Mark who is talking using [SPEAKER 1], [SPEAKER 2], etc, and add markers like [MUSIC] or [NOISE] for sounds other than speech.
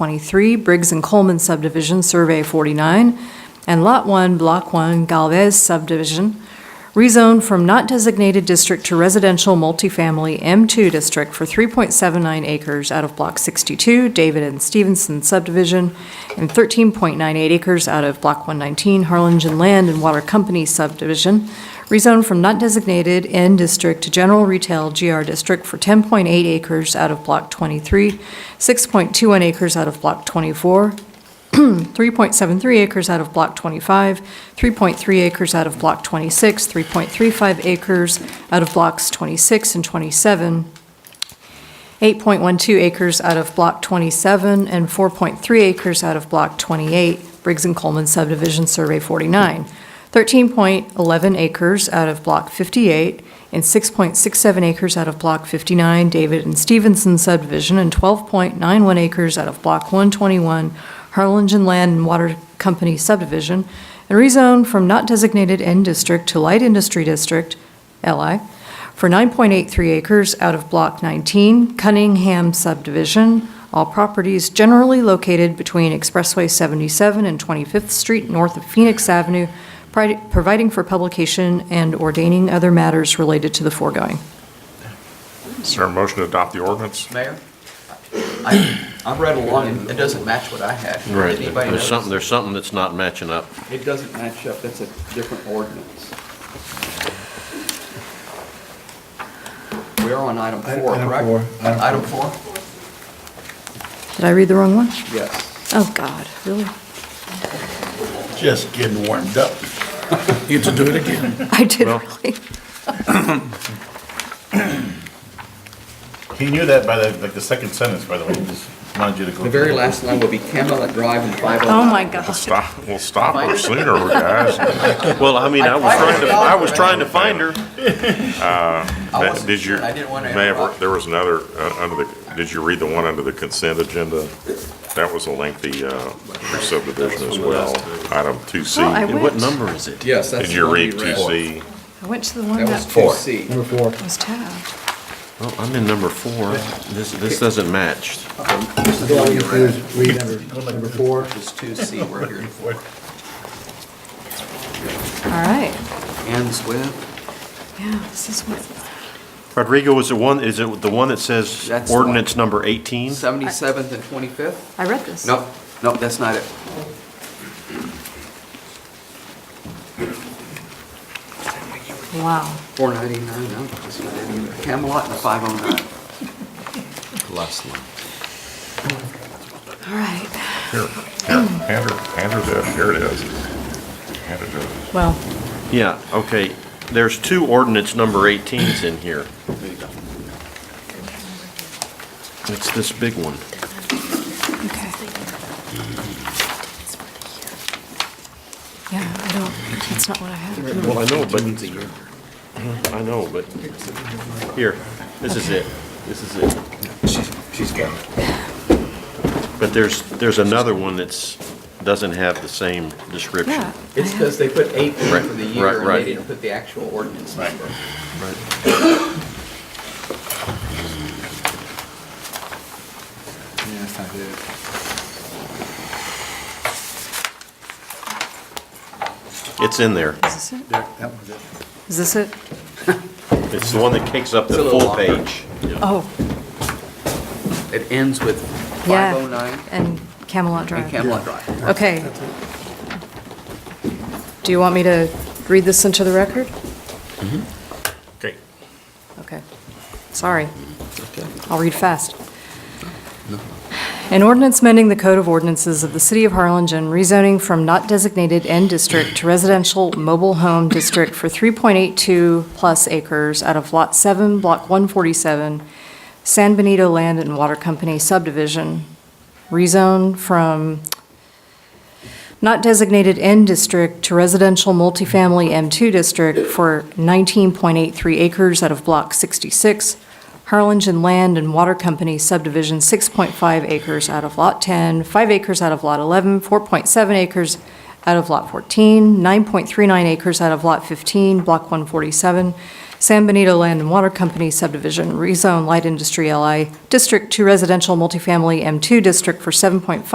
[SPEAKER 1] 23, Briggs and Coleman subdivision, Survey 49, and Lot 1, Block 1, Galvez subdivision, rezoned from not designated district to residential multifamily M2 district for 3.79 acres out of Block 62, David and Stevenson subdivision, and 13.98 acres out of Block 119, Harlingen Land and Water Company subdivision, rezoned from not designated N district to general retail GR district for 10.8 acres out of Block 23, 6.21 acres out of Block [CLEARS THROAT] 24, 3.73 acres out of Block 25, 3.3 acres out of Block 26, 3.35 acres out of Blocks 26 and 27, 8.12 acres out of Block 27, and 4.3 acres out of Block 28, Briggs and Coleman subdivision Survey 49, 13.11 acres out of Block 58, and 6.67 acres out of Block 59, David and Stevenson subdivision, and 12.91 acres out of Block 121, Harlingen Land and Water Company subdivision, and rezone from not designated N district to light industry district, LI, for 9.83 acres out of Block 19, Cunningham subdivision, all properties generally located between Expressway 77 and 25th Street north of Phoenix Avenue, pri- providing for publication and ordaining other matters related to the foregoing.
[SPEAKER 2] Is there a motion to adopt the ordinance?
[SPEAKER 3] Mayor, I, I read along, and it doesn't match what I had. Did
[SPEAKER 4] Right,
[SPEAKER 3] anybody
[SPEAKER 4] there's something,
[SPEAKER 3] notice?
[SPEAKER 4] there's something that's not matching up.
[SPEAKER 5] It doesn't match up, that's a different ordinance.
[SPEAKER 3] We're on item
[SPEAKER 6] Item-
[SPEAKER 3] four,
[SPEAKER 6] item
[SPEAKER 3] correct?
[SPEAKER 6] four, item four.
[SPEAKER 3] Item four?
[SPEAKER 1] Did I read the wrong one?
[SPEAKER 5] Yes.
[SPEAKER 1] Oh, God, really? [LAUGHS]
[SPEAKER 6] Just getting warmed up. You to do it again.
[SPEAKER 1] I did really.
[SPEAKER 7] He knew that by the, like, the second sentence, by the way, he just wanted you to go.
[SPEAKER 3] The very last line will be Camelot Drive and 509.
[SPEAKER 1] Oh, my God.
[SPEAKER 2] Stop, we'll stop her sooner, [LAUGHS] guys.
[SPEAKER 4] Well, I mean, I was trying to, I was trying to find
[SPEAKER 7] [LAUGHS]
[SPEAKER 4] her.
[SPEAKER 3] I wasn't
[SPEAKER 2] Uh, Did you,
[SPEAKER 3] sure, I didn't want to
[SPEAKER 2] may have-
[SPEAKER 3] interrupt.
[SPEAKER 2] there was another, uh, under the, did you read the one under the consent agenda? That was a lengthy uh, subdivision as well, item 2C.
[SPEAKER 1] Oh, I
[SPEAKER 4] And What
[SPEAKER 1] went,
[SPEAKER 4] number is it?
[SPEAKER 3] Yes, that's.
[SPEAKER 2] Did
[SPEAKER 3] the
[SPEAKER 2] you
[SPEAKER 3] one
[SPEAKER 2] read
[SPEAKER 3] we
[SPEAKER 2] 2C?
[SPEAKER 1] I went to the one
[SPEAKER 3] That was
[SPEAKER 1] that
[SPEAKER 3] two C.
[SPEAKER 6] Number four.
[SPEAKER 1] was tabbed.
[SPEAKER 4] Oh, I'm in number four. This, this doesn't match.
[SPEAKER 6] This is all you do is read number, number four.
[SPEAKER 3] It was two C, we're here.
[SPEAKER 1] All right,
[SPEAKER 3] Ends with,
[SPEAKER 1] yeah, this is what,
[SPEAKER 4] Rodrigo, is the one, is it the one that says
[SPEAKER 3] That's the one.
[SPEAKER 4] ordinance number 18?
[SPEAKER 3] 77th and 25th?
[SPEAKER 1] I read this.
[SPEAKER 3] Nope, nope, that's not it.
[SPEAKER 1] Wow.
[SPEAKER 3] 499, no, that's not it either. Camelot and 509.
[SPEAKER 4] Last one.
[SPEAKER 1] All right,
[SPEAKER 2] Here, here, hand her, hand her this, here it is. Hand it to her.
[SPEAKER 1] well,
[SPEAKER 4] Yeah, okay. There's two ordinance number 18s in here. It's this big one.
[SPEAKER 1] okay. Yeah, I don't, that's not what I have.
[SPEAKER 4] Well, I know, but, I know, but, here, this is it. This is it.
[SPEAKER 6] She's got it.
[SPEAKER 4] But there's, there's another one that's, doesn't have the same description.
[SPEAKER 1] Yeah. I
[SPEAKER 3] It's because
[SPEAKER 1] have-
[SPEAKER 3] they put 18
[SPEAKER 4] Right,
[SPEAKER 3] for the
[SPEAKER 4] right,
[SPEAKER 3] year, and
[SPEAKER 4] right.
[SPEAKER 3] they didn't put the actual ordinance number.
[SPEAKER 5] Yeah, that's not it.
[SPEAKER 4] It's in there.
[SPEAKER 1] Is this it?
[SPEAKER 6] That was it.
[SPEAKER 1] Is this it?
[SPEAKER 4] It's the one that takes up the
[SPEAKER 3] It's a little
[SPEAKER 4] full
[SPEAKER 3] longer.
[SPEAKER 4] page.
[SPEAKER 1] Oh,
[SPEAKER 3] It ends with
[SPEAKER 1] yeah.
[SPEAKER 3] 509
[SPEAKER 1] And Camelot
[SPEAKER 3] and
[SPEAKER 1] Drive.
[SPEAKER 3] Camelot Drive.
[SPEAKER 1] Okay. Do you want me to read this into the record?
[SPEAKER 2] Okay.
[SPEAKER 1] Okay, sorry. I'll read fast. An ordinance mending the Code of Ordinances of the City of Harlingen rezoning from not designated N district to residential mobile home district for 3.82 plus acres out of Lot 7, Block 147, San Benito Land and Water Company subdivision. Rezone from not designated N district to residential multifamily M2 district for 19.83 acres out of Block 66, Harlingen Land and Water Company subdivision 6.5 acres out of Lot 10, 5 acres out of Lot 11, 4.7 acres out of Lot 14, 9.39 acres out of Lot 15, Block 147, San Benito Land and Water Company subdivision, rezone light industry LI district to residential multifamily M2 district for 7.5